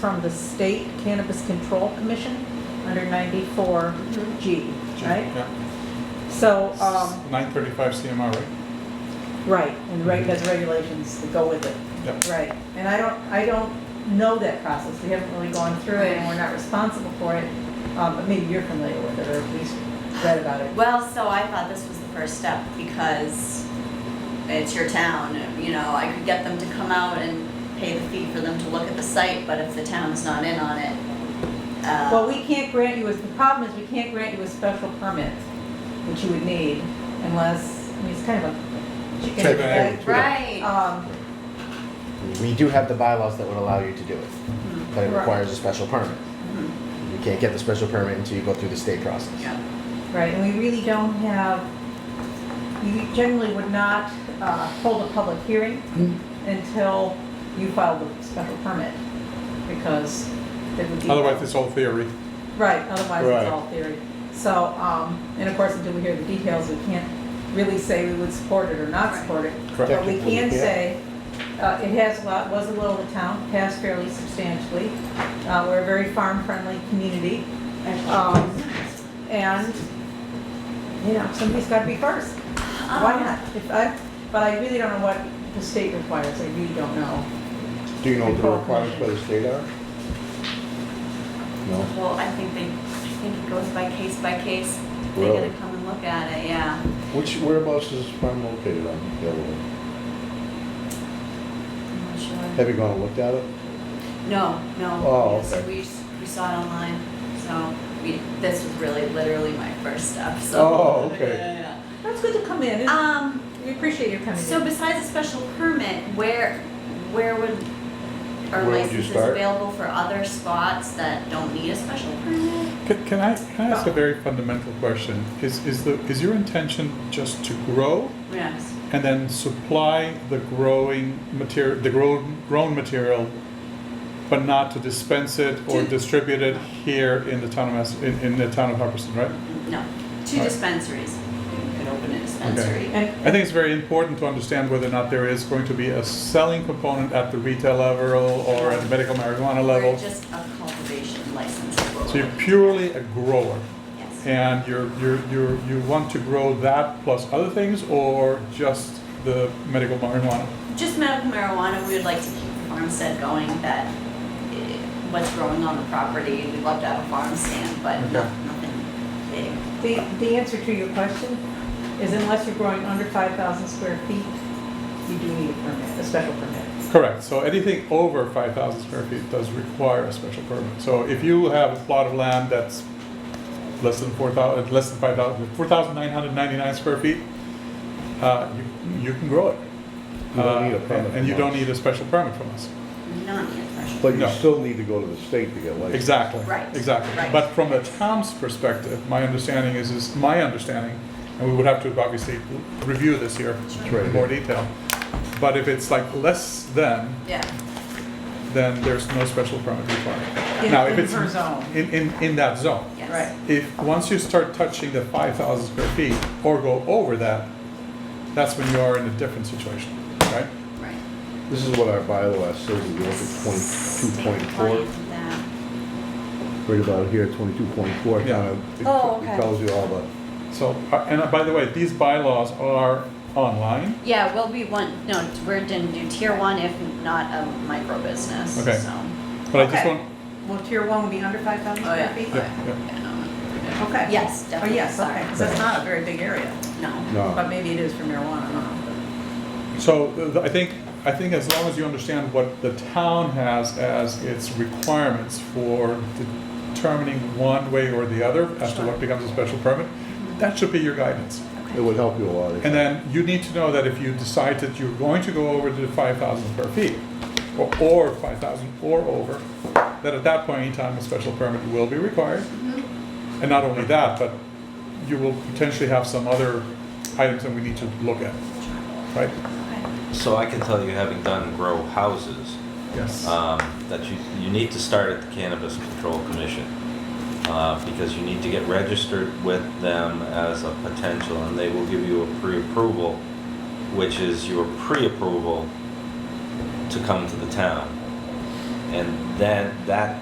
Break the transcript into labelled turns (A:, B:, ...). A: from the State Cannabis Control Commission under 94G,
B: Mm-hmm.
A: right? So, um,
B: Nine thirty-five CMR, right?
A: right, and right has regulations that go with it.
B: Yep.
A: Right, and I don't, I don't know that process, we haven't really gone through it, and we're not responsible for it. Um, but maybe you're familiar with it, or at least read about it.
C: Well, so I thought this was the first step because it's your town, you know, I could get them to come out and pay the fee for them to look at the site, but if the town's not in on it, uh,
A: Well, we can't grant you, a- the problem is, we can't grant you a special permit, which you would need, unless, I mean, it's kind of a chicken
B: Chicken
A: and
B: egg.
C: Right.
A: egg. Um,
D: We do have the bylaws that would allow you to do it,
C: Mhm,
D: but it
A: Right.
D: requires a special permit.
C: mhm,
D: You can't get the special permit until you go through the state process.
C: yeah.
A: Right, and we really don't have, you generally would not uh, hold a public hearing until you file the special permit, because it would be.
B: Otherwise, it's all theory.
A: Right, otherwise it's
B: Right.
A: all theory. So, um, and of course, until we hear the details, we can't really say we would support it or not
C: Right.
A: support it.
B: Correct.
A: But we
D: Technically,
A: can
D: yeah.
A: say, uh, it has, lo- was a little of the town, passed fairly substantially. Uh, We're a very farm-friendly community. Um, And, you know, somebody's got to be first. Why
C: Um,
A: not? If I, but I really don't know what the state requires, I really don't know.
E: Do you know what the requirements by the state are? No?
C: Well, I think they, I think it goes by case by case. They
E: Really?
C: gotta come and look at it, yeah.
E: Which, whereabouts is this farm located on Delaware?
C: I'm not sure.
E: Have you gone and looked at it?
C: No, no.
E: Oh,
C: because
E: okay.
C: We, s- we saw it online, so we, this was really literally my first step, so.
E: Oh, okay.
C: Yeah, yeah,
A: That's good to come in,
C: yeah.
A: and
C: Um,
A: we appreciate your coming
C: So
A: in.
C: besides a special permit, where, where would,
E: Where
C: are
E: would you
C: licenses
E: start?
C: available for other spots that don't need a special permit?
B: Can can I, can I ask a very fundamental question? Is, is the, is your intention just to grow
C: Yes.
B: and then supply the growing material, the grown, grown material, but not to dispense it or distribute it here in the town of Mass, in, in the town of Hubbardston, right?
C: No, two
B: Right.
C: dispensaries. You could open a dispensary.
A: And,
B: I think it's very important to understand whether or not there is going to be a selling component at the retail level or at the medical marijuana
C: Or
B: level.
C: just a cultivation license.
B: So you're purely a grower.
C: Yes.
B: and you're, you're, you're, you want to grow that plus other things or just the medical marijuana?
C: Just medical marijuana, we would like to keep the farmstead going, that eh, what's growing on the property, we'd love to have a farm stand, but no-
B: Okay.
C: nothing big.
A: the, the answer to your question is unless you're growing under 5,000 square feet, you do need a permit, a special permit.
B: Correct, so anything over 5,000 square feet does require a special permit. So if you have a plot of land that's less than 4,000, less than 5,000, 4,999 square feet, uh, you, you can grow it.
E: You don't
B: Uh,
E: need a
B: and-
E: permit
B: And you
E: from
B: don't
E: us.
B: need a special permit from us.
C: Not yet, special.
E: But you
B: No.
E: still need to go to the state to get licensed.
B: Exactly.
C: Right,
B: Exactly.
C: right.
B: But from the town's perspective, my understanding is, is my understanding, and we would have to obviously review this here
E: Sure.
B: in more detail. But if it's like less than,
C: Yeah.
B: then there's no special permit required.
A: In-
B: Now, if
A: in
B: it's
A: her zone.
B: In, in, in that zone.
C: Yes.
A: Right.
B: If, once you start touching the five thousand square feet or go over that, that's when you are in a different situation, right?
C: Right.
E: This is what our bylaw says, if you look at twenty-two point four, right about here, twenty-two point four.
B: Yeah.
C: Oh, okay.
E: It tells you all the,
B: So, uh, and uh, by the way, these bylaws are online.
C: Yeah, well, we want, no, we're gonna do tier one if not a micro business, so.
B: Okay. But I just
A: Okay.
B: want,
A: Well, tier one would be under 5,000
C: Oh,
A: square
C: yeah.
A: feet?
B: Yeah, yeah.
C: yeah.
A: Okay.
C: Yes,
A: Oh,
C: definitely,
A: yes, okay,
C: sorry.
A: 'cause that's not a very big area,
C: No.
A: but
E: no,
A: maybe it is for marijuana, I don't know.
B: So th- I think, I think as long as you understand what the town has as its requirements for determining one way or the other as to
A: Sure.
B: what becomes a special permit, that should be your guidance.
E: it would help you a lot. if-
B: And then you need to know that if you decide that you're going to go over to the five thousand square feet, or, or five thousand or over, that at that point in time, a special permit will be required. And not only that, but you will potentially have some other items that we need to look at, right?
F: So I can tell you, having done grow houses,
B: Yes.
F: um, that you, you need to start at the Cannabis Control Commission. Uh, because you need to get registered with them as a potential and they will give you a pre-approval, which is your pre-approval to come to the town. And then that